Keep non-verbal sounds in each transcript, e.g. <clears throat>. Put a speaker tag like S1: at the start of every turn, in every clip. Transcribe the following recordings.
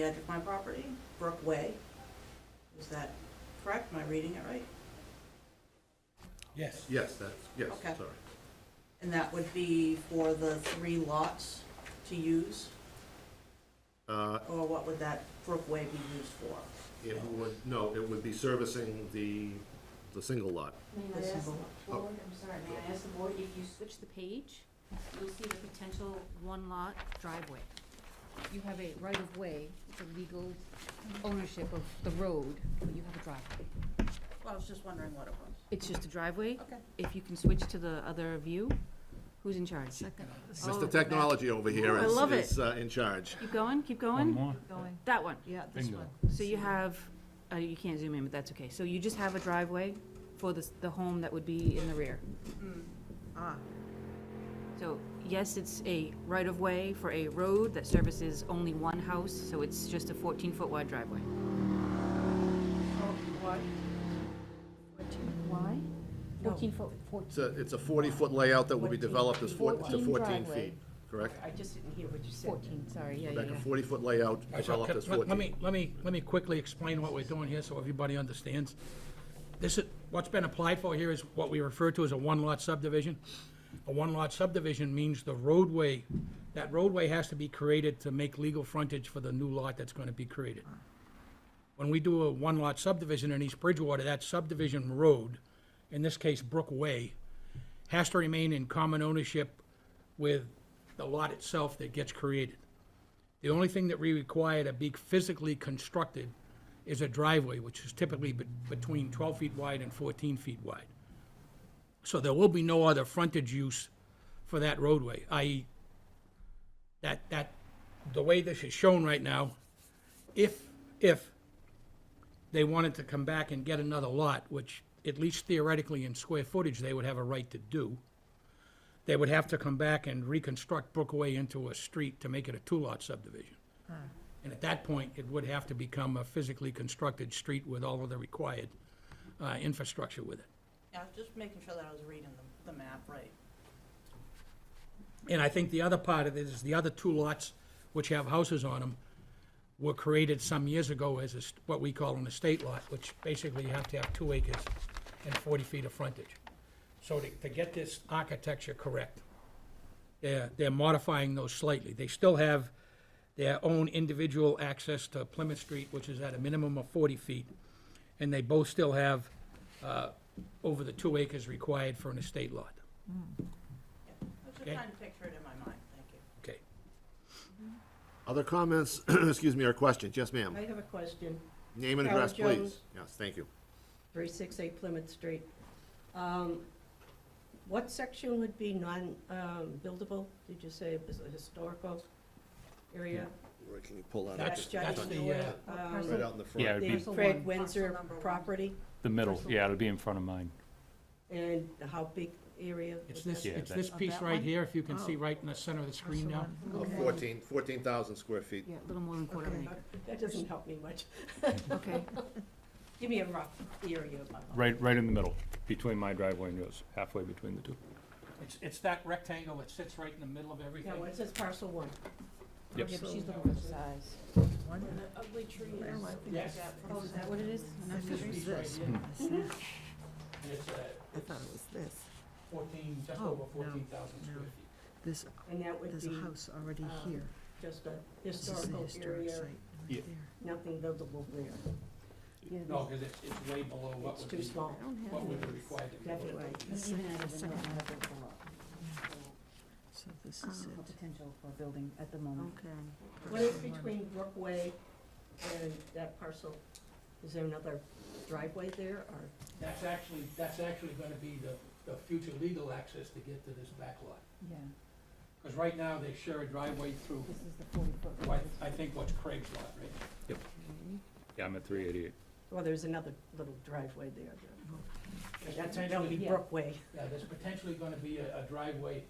S1: the edge of my property, Brook Way. Is that correct? Am I reading it right?
S2: Yes.
S3: Yes, that's, yes,
S1: Okay.
S3: sorry.
S1: And that would be for the three lots to use,
S3: Uh,
S1: or what would that Brook Way be used for?
S3: It would, no, it would be servicing the, the single lot.
S4: May I
S1: This
S4: ask the
S1: envelope.
S4: board, I'm sorry, may I ask the board, if you switch the page, you'll see the potential one-lot driveway. You have a right-of-way, it's a legal ownership of the road, but you have a driveway.
S1: Well, I was just wondering what it was.
S4: It's just a driveway?
S1: Okay.
S4: If you can switch to the other view, who's in charge? Oh,
S3: Mr. Technology over here
S4: I
S3: is,
S4: love it.
S3: is uh, in charge.
S4: Keep going, keep
S2: One
S4: going.
S2: more.
S5: Going,
S4: That one.
S5: yeah, this
S2: Bingo.
S5: one.
S4: So you have, uh, you can't zoom in, but that's okay. So you just have a driveway for the, s- the home that would be in the rear.
S1: Ah,
S4: So, yes, it's a right-of-way for a road that services only one house, so it's just a 14-foot wide driveway.
S5: Oh, why? Fourteen, why?
S4: 14-foot,
S3: It's a, it's a 40-foot layout that will be
S5: 14
S3: developed as four, to
S5: 14
S3: 14
S5: driveway.
S3: feet, correct?
S5: I just didn't hear what you said.
S4: 14, sorry, yeah, yeah,
S3: Like a
S4: yeah.
S3: 40-foot layout
S6: All right, so
S3: developed as
S6: let- let-
S3: 14.
S6: Let me, let me, let me quickly explain what we're doing here so everybody understands. This is, what's been applied for here is what we refer to as a one-lot subdivision. A one-lot subdivision means the roadway, that roadway has to be created to make legal frontage for the new lot that's gonna be created. When we do a one-lot subdivision in East Bridgewater, that subdivision road, in this case Brook Way, has to remain in common ownership with the lot itself that gets created. The only thing that we require to be physically constructed is a driveway, which is typically be- between 12 feet wide and 14 feet wide. So there will be no other frontage use for that roadway, i.e., that, that, the way this is shown right now, if, if they wanted to come back and get another lot, which at least theoretically in square footage, they would have a right to do, they would have to come back and reconstruct Brookway into a street to make it a two-lot subdivision. And at that point, it would have to become a physically constructed street with all of the required uh, infrastructure with it.
S1: yeah, I was just making sure that I was reading the, the map right.
S6: And I think the other part of it is the other two lots, which have houses on them, were created some years ago as a st- what we call an estate lot, which basically you have to have two acres and 40 feet of frontage. So to, to get this architecture correct, they're, they're modifying those slightly. They still have their own individual access to Plymouth Street, which is at a minimum of 40 feet, and they both still have uh, over the two acres required for an estate lot.
S1: Yeah, I was just
S6: Okay.
S1: trying to picture it in my mind, thank you.
S6: Okay.
S3: Other comments, <clears throat> excuse me, or questions? Yes, ma'am.
S7: I have a question,
S3: Name and
S7: Carol
S3: address, please.
S7: Jones.
S3: Yes, thank you.
S7: 368 Plymouth Street. Um, What section would be non-buildable? Did you say it was a historical area?
S3: Can you pull that
S6: up?
S7: That's
S6: That's- that's
S7: Judge
S6: the,
S7: North,
S6: uh,
S7: um,
S3: Right out in the front.
S2: Yeah, it'd
S7: The
S2: be
S5: Parcel
S7: Fred
S5: one.
S1: Parcel
S7: Windsor
S1: number one.
S7: property,
S2: the middle, yeah, it'll be in front of mine.
S7: and how big area?
S6: It's
S7: would
S6: this,
S7: that be?
S2: Yeah,
S6: it's this
S5: that-
S6: piece
S5: Of that
S6: right
S5: one?
S6: here, if you can see
S5: Oh.
S6: right in the center of the screen now.
S3: Uh, 14 14,000 square feet.
S4: Yeah, a little more than quarter of an
S7: Okay, That doesn't help me much.
S4: acre. Okay,
S7: Give me a rough area of my home.
S2: Right, right in the middle, between my driveway and yours, halfway between the two.
S6: It's, it's that rectangle that sits right in the middle of everything.
S7: Now, what is this parcel one?
S2: Yep.
S4: Yeah, but she's looking for the size.
S5: One,
S1: Ugly trees.
S5: Oh, I think
S6: Yes.
S4: <laughs> Oh, is that what it is?
S5: I
S6: This
S5: think
S6: piece
S5: it's
S6: right
S5: this.
S6: here,
S5: I see.
S6: and it's, uh,
S5: I thought it was this.
S6: fourteen, just
S5: Oh,
S6: over
S5: no,
S6: fourteen thousand square
S5: no.
S6: feet.
S5: This,
S7: And that would
S5: there's a
S7: be
S5: house already
S7: um,
S5: here.
S7: just a
S5: This is the
S7: historical
S5: historic
S7: area,
S5: site
S2: Yeah.
S5: right there.
S7: nothing buildable there.
S6: No, because it's, it's way below what
S7: It's
S6: would
S7: too
S6: be,
S7: small,
S5: I don't
S6: what
S5: have
S6: would be
S5: this.
S6: required to be. built.
S7: definitely.
S5: This
S4: Even
S5: is
S4: added
S5: the
S4: in
S5: second
S4: the
S5: one.
S4: other block.
S5: So this is it.
S4: Potential for building at the moment.
S5: Okay.
S7: What is between Brookway and that parcel? Is there another driveway there, or,
S6: That's actually, that's actually gonna be the, the future legal access to get to this back lot.
S4: Yeah,
S6: Because right now, they share a driveway through,
S4: this is the 40-foot.
S6: what I think what's Craig's lot, right?
S2: Yeah, I'm at three eighty-eight.
S7: well, there's another little driveway there.
S6: There's
S7: That's, that would be
S6: potentially-
S7: Brookway.
S6: Yeah, there's potentially gonna be a, a driveway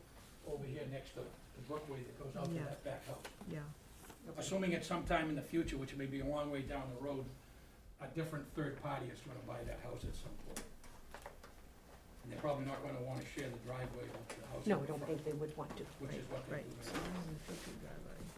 S6: over here next to the brookway that goes out to
S5: Yeah.
S6: that back house.
S5: Yeah,
S6: Assuming at some time in the future, which may be a long way down the road, a different third party is gonna buy that house at some point. And they're probably not gonna wanna share the driveway with the house.
S7: No,
S6: in
S7: I don't
S6: front,
S7: think they would want to.
S6: Which is what they
S5: right.
S6: do.
S5: So this is the fifty driveway.